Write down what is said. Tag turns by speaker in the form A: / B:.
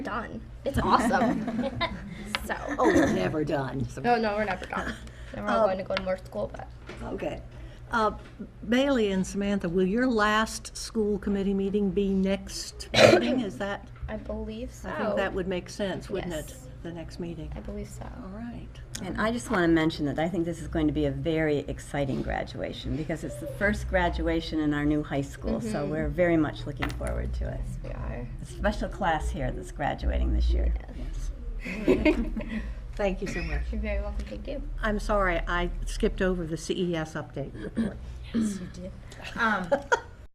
A: done. It's awesome. so,
B: Oh, we're never done. So-
A: no, no, we're never done. And we're all
B: Um,
A: going to go to more school, but
B: Okay. Uh, Bailey and Samantha, will your last school committee meeting be next meeting? Is that,
A: I believe so.
B: I think that would make sense, wouldn't it?
A: Yes.
B: The next meeting.
A: I believe so.
B: Oh. All right.
C: And I just want to mention that I think this is going to be a very exciting graduation because it's the first graduation in our new high school. So we're very much looking forward to it.
A: We are.
C: A special class here that's graduating this year. Yes.
B: Thank you so much.
A: You're very welcome. Thank you.
B: I'm sorry, I skipped over the CES update E report.
A: Yes, you did.
D: Um,